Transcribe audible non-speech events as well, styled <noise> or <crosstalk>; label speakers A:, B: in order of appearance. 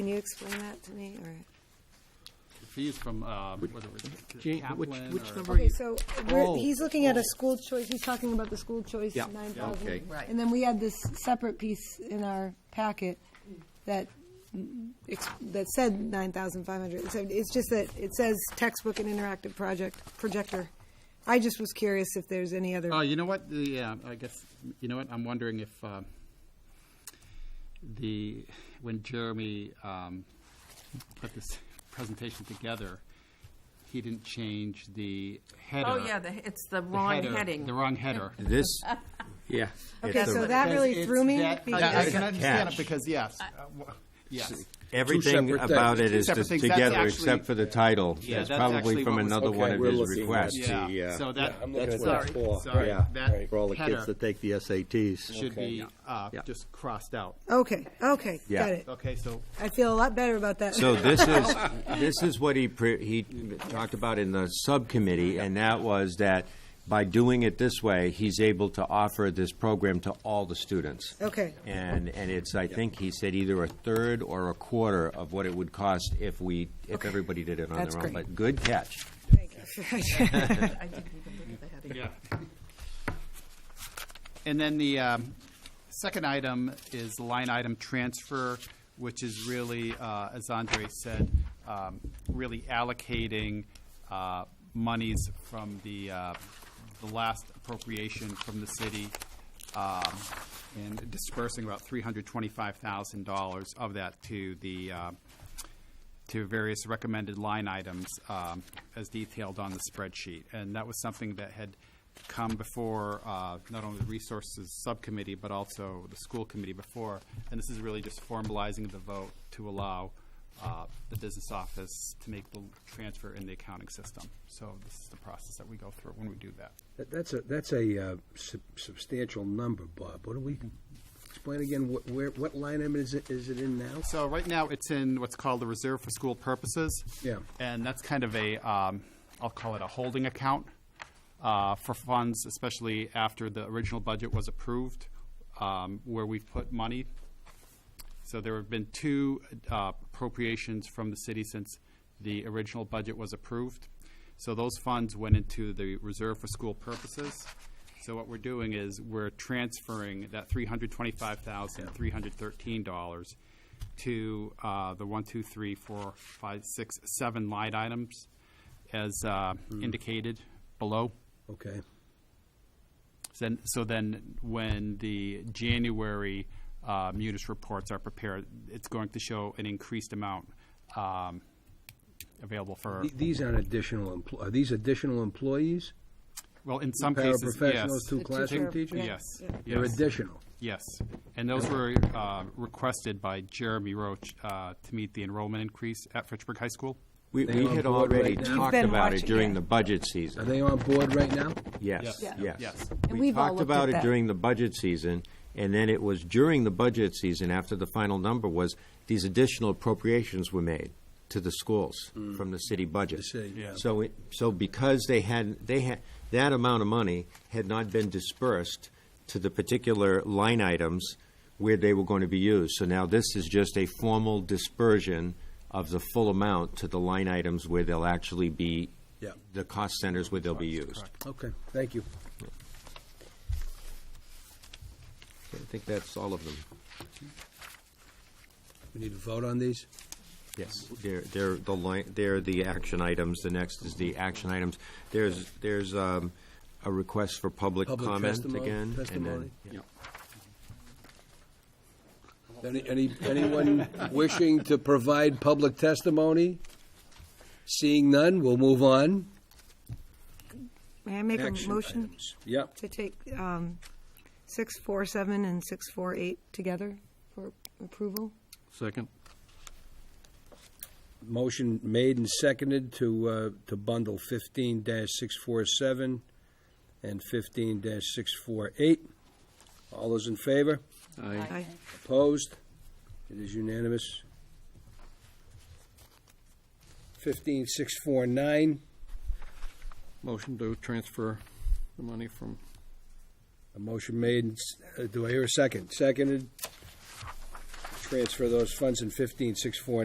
A: Can you explain that to me, or?
B: Fees from, uh, whether it was
C: Jane, which-
B: Kaplan
C: which
B: or-
C: number-
D: Okay, so we're-
C: Oh,
D: he's looking at a school choice, he's talking about the school choice,
C: Yeah,
D: nine
C: yeah, okay.
D: thousand.
E: Right.
D: And then we had this separate piece in our packet that, ex- that said nine thousand five hundred. It's just that it says textbook and interactive project, projector. I just was curious if there's any other,
B: Oh, you know what, The, yeah, I guess, you know what, I'm wondering if, uh, the, when Jeremy, um, put this <laughs> presentation together, he didn't change the header.
E: Oh, yeah, the, it's the wrong heading.
B: The wrong header. <laughs>
C: This, yeah.
D: okay,
C: It's
D: so
C: a-
D: that
B: Because
D: really
B: it's
D: threw me.
B: that-
D: because-
B: that- I can understand
C: Catch.
B: it, because yes, uh, w- yes.
C: Everything
F: separate
C: about
F: things.
C: it is
B: Separate
C: just
B: things. That's
C: together,
B: actually-
C: except for the title.
B: Yeah,
C: That's
B: that's
C: probably
B: actually
C: from
B: what was-
C: another
F: Okay,
C: one of
F: we're
C: his
F: looking at
C: requests.
F: the,
B: Yeah,
C: He, uh,
B: so that.
F: I'm looking
B: that's
F: at that
B: sorry,
F: four.
B: Sorry,
C: Yeah.
B: that
F: For all the kids
B: header
F: that take the SATs.
B: should be, uh,
C: Yeah.
B: just crossed out.
D: Okay, okay,
C: Yeah.
D: got it.
B: Okay, so
D: I feel a lot better about that.
C: So
F: <laughs>
C: this is, this is what he, pre- he talked about in the subcommittee, and that was that by doing it this way, he's able to offer this program to all the students.
D: Okay.
C: And, and it's, I think he said either a third or a quarter of what it would cost if we, if everybody did it on
D: That's
C: their own.
D: great.
C: But good catch.
D: Thank you. <laughs>
C: <laughs>
E: I didn't even look at the heading.
B: Yeah. And then the um, second item is line item transfer, which is really, uh, as Andre said, um, really allocating uh, monies from the, uh, the last appropriation from the city um, and dispersing about $325,000 of that to the, uh, to various recommended line items um, as detailed on the spreadsheet. And that was something that had come before uh, not only the Resources Subcommittee, but also the School Committee before. And this is really just formalizing the vote to allow uh, the business office to make the transfer in the accounting system. So this is the process that we go through when we do that.
G: That- That's a, that's a uh, sub- substantial number, Bob. What do we, explain again, what, where, what line item is it, is it in now?
B: So right now, it's in what's called the Reserve for School Purposes.
G: Yeah.
B: And that's kind of a, um, I'll call it a holding account uh, for funds, especially after the original budget was approved, um, where we've put money. So there have been two uh, appropriations from the city since the original budget was approved. So those funds went into the Reserve for School Purposes. So what we're doing is we're transferring that three hundred twenty-five thousand, three hundred thirteen dollars to uh, the one, two, three, four, five, six, seven line items as uh, indicated below.
G: Okay.
B: Then, so then, when the January uh, munis reports are prepared, it's going to show an increased amount um, available for,
G: Th- These aren't additional, empl- are these additional employees?
B: well, in some cases, yes.
G: Paraprofessionals, two classroom
D: teacher,
G: teachers?
D: yeah.
B: Yes,
G: They're
B: yes,
G: additional.
B: yes. And those were uh, requested by Jeremy Roach uh, to meet the enrollment increase at Fitchburg High School.
C: We,
G: They
C: we
G: on
C: had
G: board
C: already
G: right now? You've
C: talked
D: been
C: about it
D: watching
C: during
D: it.
C: the budget
G: Are
C: season.
G: they on board right now?
C: Yes,
B: Yes. Yeah.
C: yes.
B: Yes.
D: And
C: We
D: we've all
C: talked
D: looked
C: about
D: at
C: it
D: that.
C: during the budget season, and then it was during the budget season, after the final number was, these additional appropriations were made to the schools from the city budget.
G: The city, yeah.
C: So, it- so because they had, they had, that amount of money had not been dispersed to the particular line items where they were going to be used. So now this is just a formal dispersion of the full amount to the line items where they'll actually be,
G: Yeah.
C: the cost centers where they'll be used.
B: Correct.
G: Okay, thank you.
C: I think that's all of them.
G: We need to vote on these?
C: Yes, they're, they're the line, they're the action items, the next is the action items. There's, there's um, a request for public
G: Public
C: comment
G: testimony-
C: again. and then-
G: testimony.
C: yeah.
G: Any, any, anyone <laughs> wishing to provide public testimony? Seeing none, we'll move on.
D: May I make a
G: Action
D: motion?
G: items. Yep.
D: to take um, 647 and 648 together for approval?
F: Second.
G: Motion made and seconded to, uh, to bundle fifteen six four seven and fifteen six four eight. All those in favor?
F: Aye.
D: Aye.
G: Opposed? It is unanimous. Fifteen six four nine,
F: Motion to transfer the money from,
G: a motion made, and s- uh, do I hear a second? Seconded. transfer those funds in fifteen six four